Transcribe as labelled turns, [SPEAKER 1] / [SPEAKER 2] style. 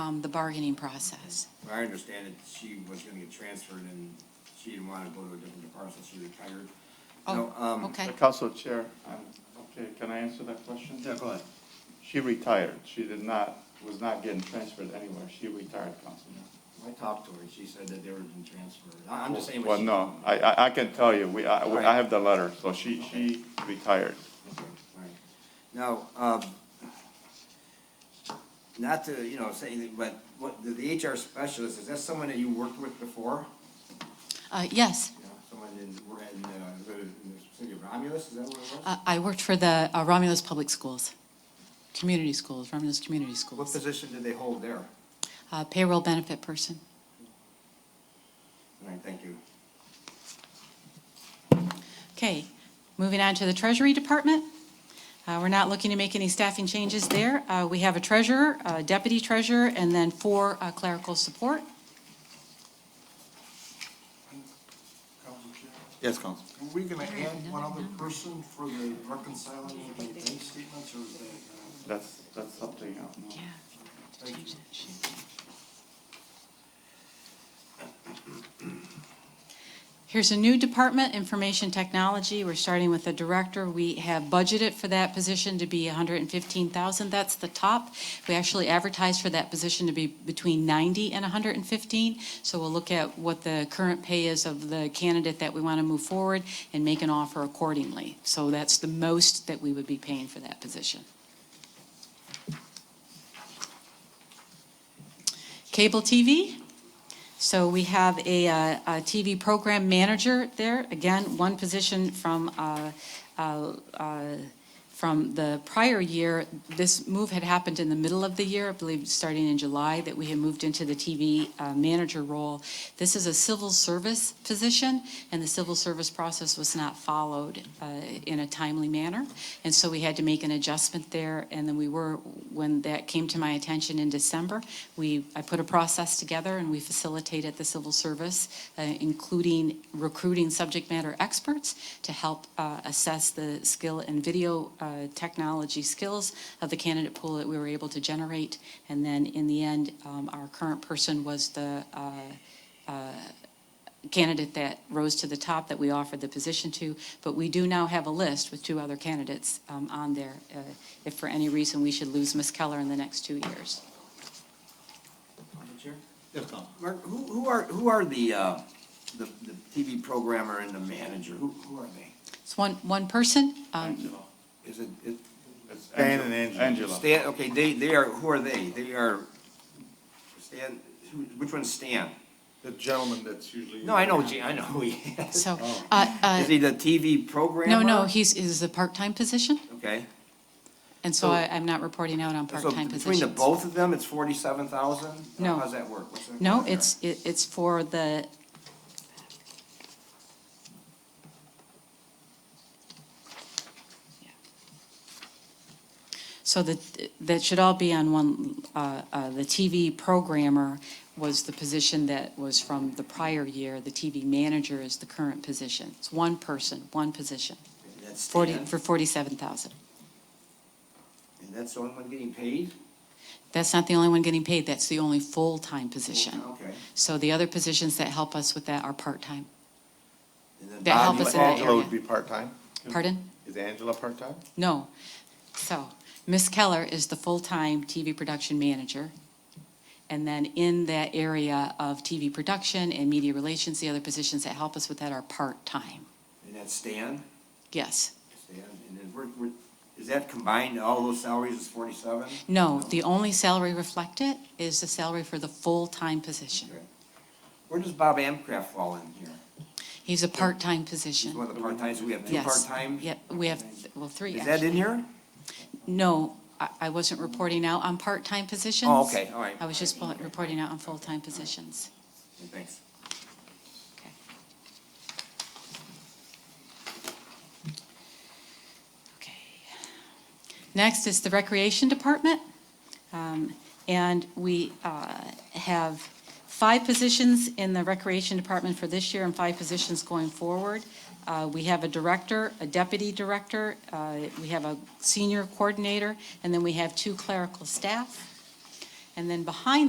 [SPEAKER 1] um, the bargaining process.
[SPEAKER 2] I understand that she was gonna get transferred and she didn't wanna go to a different department, so she retired. No,
[SPEAKER 1] Oh,
[SPEAKER 2] um,
[SPEAKER 1] okay.
[SPEAKER 3] Council Chair, um, okay, can I answer that question?
[SPEAKER 2] Yeah, go ahead.
[SPEAKER 3] She retired. She did not, was not getting transferred anywhere. She retired, Councilman.
[SPEAKER 2] I talked to her, she said that they were being transferred. I- I'm just saying what
[SPEAKER 3] Well,
[SPEAKER 2] she.
[SPEAKER 3] no, I, I, I can tell you, we, I, we- I
[SPEAKER 2] Right.
[SPEAKER 3] have the letter, so she, she retired.
[SPEAKER 2] Okay, all right. Now, um, not to, you know, say anything, but what, the- the HR specialist, is that someone that you worked with before?
[SPEAKER 1] Uh, yes,
[SPEAKER 2] You know, Someone in, we're in, uh, the- in the city of Romulus, is that what it was?
[SPEAKER 1] uh, I worked for the uh, Romulus Public Schools, community schools, Romulus Community
[SPEAKER 2] What
[SPEAKER 1] Schools.
[SPEAKER 2] position did they hold there?
[SPEAKER 1] Uh, payroll benefit person.
[SPEAKER 2] All right, thank you.
[SPEAKER 1] Okay, moving on to the Treasury Department. Uh, We're not looking to make any staffing changes there. Uh, We have a treasurer, a deputy treasurer, and then four uh, clerical support.
[SPEAKER 4] Council Chair,
[SPEAKER 5] Yes, Council.
[SPEAKER 4] Are we gonna add one other person for the reconciling of the bank statements, or is that? uh,
[SPEAKER 3] That's, that's something else. no?
[SPEAKER 4] Change
[SPEAKER 1] Here's a new department, Information Technology. We're starting with the director. We have budgeted for that position to be 115,000. That's the top. We actually advertised for that position to be between 90 and 115. So we'll look at what the current pay is of the candidate that we want to move forward and make an offer accordingly. So that's the most that we would be paying for that position. Cable TV, so we have a, uh, a TV program manager there, again, one position from, uh, uh, uh, from the prior year. This move had happened in the middle of the year, I believe, starting in July, that we had moved into the TV uh, manager role. This is a civil service position, and the civil service process was not followed uh, in a timely manner. And so we had to make an adjustment there, and then we were, when that came to my attention in December, we, I put a process together and we facilitated the civil service, uh, including recruiting subject matter experts to help uh, assess the skill and video uh, technology skills of the candidate pool that we were able to generate. And then in the end, um, our current person was the uh, candidate that rose to the top that we offered the position to, but we do now have a list with two other candidates um, on there, uh, if for any reason we should lose Ms. Keller in the next two years.
[SPEAKER 2] Council
[SPEAKER 4] uh,
[SPEAKER 2] Chair?
[SPEAKER 5] Yes, Council.
[SPEAKER 2] Mark, who, who are, who are the, uh, the, the TV programmer and the manager? Who, who are they?
[SPEAKER 1] It's one, one person. um,
[SPEAKER 3] Angela.
[SPEAKER 2] Is it, it,
[SPEAKER 3] It's
[SPEAKER 5] Stan and
[SPEAKER 3] Angela. Angela.
[SPEAKER 2] Stan, okay, they, they are, who are they? They are, Stan, who, which one's Stan?
[SPEAKER 5] The gentleman that's usually.
[SPEAKER 2] No, I know, Gee, I know who he is.
[SPEAKER 1] So, uh, uh,
[SPEAKER 2] Oh. Is he the TV programmer?
[SPEAKER 1] no, no, he's, is a part-time position,
[SPEAKER 2] Okay.
[SPEAKER 1] and so
[SPEAKER 2] So-
[SPEAKER 1] I- I'm not reporting out on
[SPEAKER 2] So
[SPEAKER 1] part-time
[SPEAKER 2] between
[SPEAKER 1] positions.
[SPEAKER 2] the both of them, it's forty-seven thousand?
[SPEAKER 1] No.
[SPEAKER 2] How's that work? What's that
[SPEAKER 1] No,
[SPEAKER 2] work there?
[SPEAKER 1] it's, it- it's for the, So that, that should all be on one, uh, uh, the TV programmer was the position that was from the prior year. The TV manager is the current position. It's one person, one position,
[SPEAKER 2] That's
[SPEAKER 1] forty,
[SPEAKER 2] Stan,
[SPEAKER 1] for forty-seven thousand.
[SPEAKER 2] and that's the only one getting paid?
[SPEAKER 1] That's not the only one getting paid, that's the only full-time position.
[SPEAKER 2] Okay.
[SPEAKER 1] So the other positions that help us with that are part-time.
[SPEAKER 2] And then
[SPEAKER 1] That help
[SPEAKER 2] Bobby-
[SPEAKER 1] us in that
[SPEAKER 5] Angela
[SPEAKER 1] area.
[SPEAKER 5] would be part-time?
[SPEAKER 1] Pardon?
[SPEAKER 5] Is Angela part-time?
[SPEAKER 1] No. So, Ms. Keller is the full-time TV production manager. And then in that area of TV production and media relations, the other positions that help us with that are part-time.
[SPEAKER 2] And that's Stan?
[SPEAKER 1] Yes.
[SPEAKER 2] Stan, and then we're, we're, is that combined, all those salaries is forty-seven?
[SPEAKER 1] No, the only salary reflected is the salary for the full-time position.
[SPEAKER 2] Okay. Where does Bob Amcraft fall in here?
[SPEAKER 1] He's a part-time
[SPEAKER 2] He's one
[SPEAKER 1] position.
[SPEAKER 2] of the part-times, we have two
[SPEAKER 1] Yes.
[SPEAKER 2] part-times?
[SPEAKER 1] Yep, we have, well, three,
[SPEAKER 2] Is that
[SPEAKER 1] actually.
[SPEAKER 2] in here?
[SPEAKER 1] No, I, I wasn't reporting out on part-time positions.
[SPEAKER 2] Oh, okay, all right.
[SPEAKER 1] I was just bu- reporting out on full-time positions.
[SPEAKER 2] Thanks.
[SPEAKER 1] Okay. Okay. Next is the Recreation Department. Um, And we uh, have five positions in the Recreation Department for this year and five positions going forward. Uh, We have a director, a deputy director, uh, we have a senior coordinator, and then we have two clerical staff. And then behind